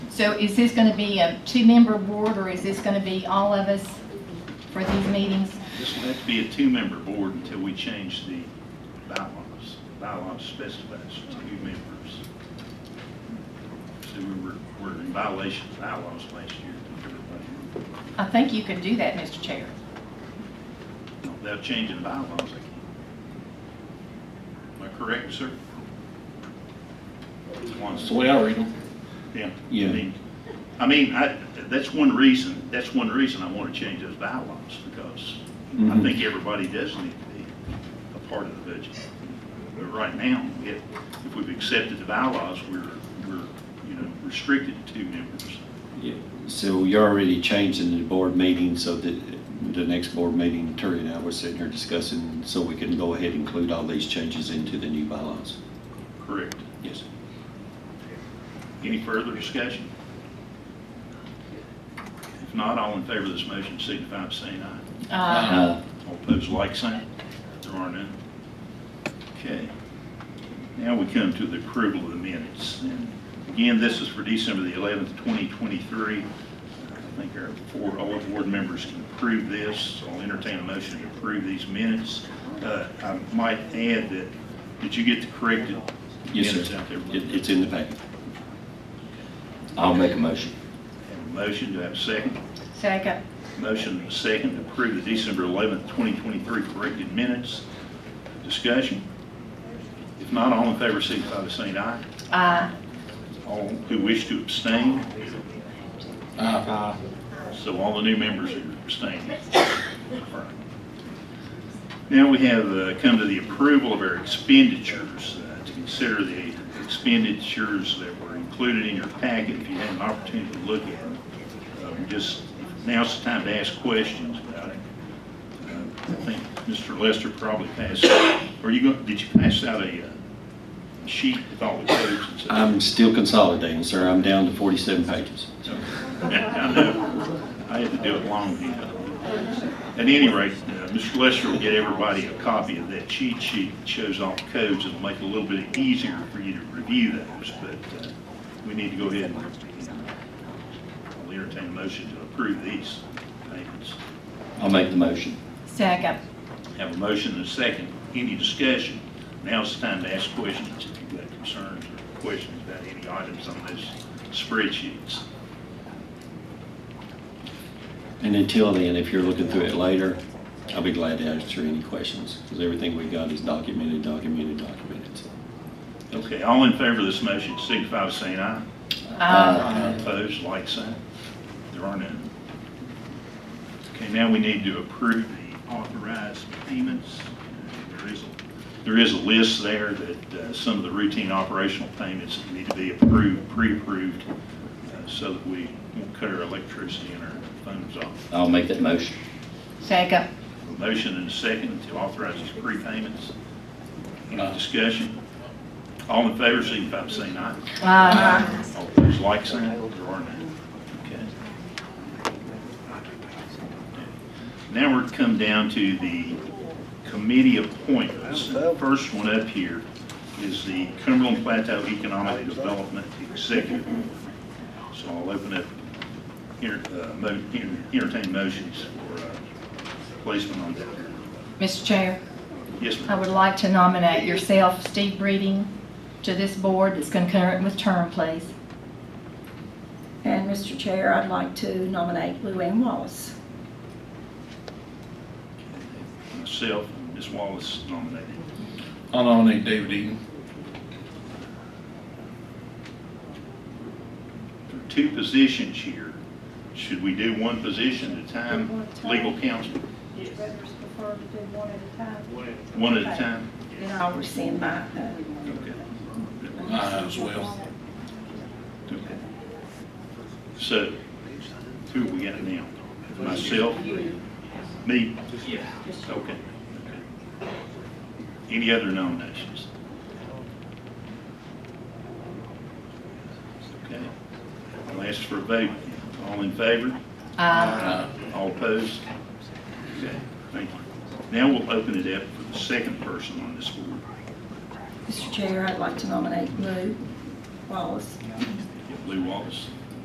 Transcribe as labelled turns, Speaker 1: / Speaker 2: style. Speaker 1: So is this going to be a two-member board, or is this going to be all of us for these meetings?
Speaker 2: This will have to be a two-member board until we change the bylaws. Bylaws specifies two members. So we were, we're in violation of bylaws last year. everybody.
Speaker 1: I think you can do that, Mr. Chair.
Speaker 2: Without changing the bylaws, I can't. Am I correct, sir? That's one-
Speaker 3: That's the way I read them.
Speaker 2: Yeah.
Speaker 3: Yeah.
Speaker 2: I mean- I mean, I, that's one reason, that's one reason I want to change those bylaws, because I
Speaker 3: Mhm.
Speaker 2: think everybody does need to be a part of the budget. But right now, if, if we've accepted the bylaws, we're, we're, you know, restricted to two members.
Speaker 4: Yeah, So you're already changing the board meeting so that the next board meeting, Terry and I were sitting here discussing, so we can go ahead and include all these changes into the new bylaws.
Speaker 2: Correct.
Speaker 4: Yes.
Speaker 2: Any further discussion? If not, all in favor of this motion signify by saying aye. Uh-huh.
Speaker 1: Uh,
Speaker 2: All opposed, like sign. There are none. Okay. Now we come to the approval of the minutes. And again, this is for December the 11th, 2023. I think our four, all the board members can approve this. I'll entertain a motion to approve these minutes. Uh, I might add that, did you get the corrected
Speaker 4: Yes,
Speaker 2: minutes
Speaker 4: sir.
Speaker 2: out there?
Speaker 4: It- It's in the packet. I'll make a motion.
Speaker 2: Have a motion, do I have a second?
Speaker 1: Uh, Second,
Speaker 2: Motion and a second to approve the December 11th, 2023 corrected minutes. Discussion? If not, all in favor, signify by saying aye.
Speaker 1: uh,
Speaker 2: All who wish to abstain,
Speaker 3: Aye.
Speaker 2: so all the new members are abstaining. Now we have uh, come to the approval of our expenditures, uh, to consider the expenditures that were included in your packet, if you had an opportunity to look at them. Um, Just, now's the time to ask questions about it. Uh, I think Mr. Lester probably passed, or you go, did you pass out a uh, sheet with all the codes and such?
Speaker 4: I'm still consolidating, sir. I'm down to 47 pages.
Speaker 2: I know. I had to do it long. you know. At any rate, uh, Mr. Lester will get everybody a copy of that cheat sheet that shows all the codes. It'll make it a little bit easier for you to review those, but uh, we need to go ahead and I'll entertain a motion to approve these payments.
Speaker 4: I'll make the motion.
Speaker 1: second,
Speaker 2: Have a motion and a second. Any discussion? Now's the time to ask questions if you've got concerns or questions about any items on those spreadsheets.
Speaker 4: And until then, if you're looking through it later, I'll be glad to answer any questions, because everything we got is documented, documented, documented. so.
Speaker 2: Okay, all in favor of this motion, signify by saying aye.
Speaker 1: uh,
Speaker 2: Uh-huh. Opposed, like sign. There are none. Okay, now we need to approve the authorized payments. There is, a- there is a list there that uh, some of the routine operational payments need to be approved, pre-approved, uh, so that we won't cut our electricity and our phones off.
Speaker 4: I'll make that motion.
Speaker 1: second,
Speaker 2: A Motion and a second to authorize these prepayments. Any discussion? All in favor, signify by saying aye.
Speaker 1: uh,
Speaker 2: All those like sign, there are none. Okay. Now we're come down to the committee appointments. And the First one up here is the Cumberland Plateau Economic Development Executive. Board. So I'll open up, enter- uh, mo- enter- entertain motions for uh, placement on that.
Speaker 1: Mr. Chair,
Speaker 2: Yes, ma'am.
Speaker 1: I would like to nominate yourself, Steve Breeding, to this board that's concurrent with term, please.
Speaker 5: And Mr. Chair, I'd like to nominate Lou Ann Wallace.
Speaker 2: myself, and Ms. Wallace nominated.
Speaker 3: I'll nominate David Eaton.
Speaker 2: There are two positions here. Should we do one position at a
Speaker 5: Do one
Speaker 2: time,
Speaker 5: at a time.
Speaker 2: legal counsel,
Speaker 5: Would you rather prefer to do one at a time?
Speaker 2: one at a time?
Speaker 5: Then I'll rescind my, uh,
Speaker 2: Okay.
Speaker 3: Aye uh, as well.
Speaker 2: Okay. So, who we got now? Myself? Me? Yeah. Okay. Okay. Any other nominations? Okay. I'll ask for a vote. All in favor? Uh-huh.
Speaker 1: Uh,
Speaker 3: Aye.
Speaker 2: All opposed? Okay, thank you. Now we'll open it up for the second person on this board.
Speaker 5: Mr. Chair, I'd like to nominate Lou Wallace.
Speaker 2: Lou Wallace.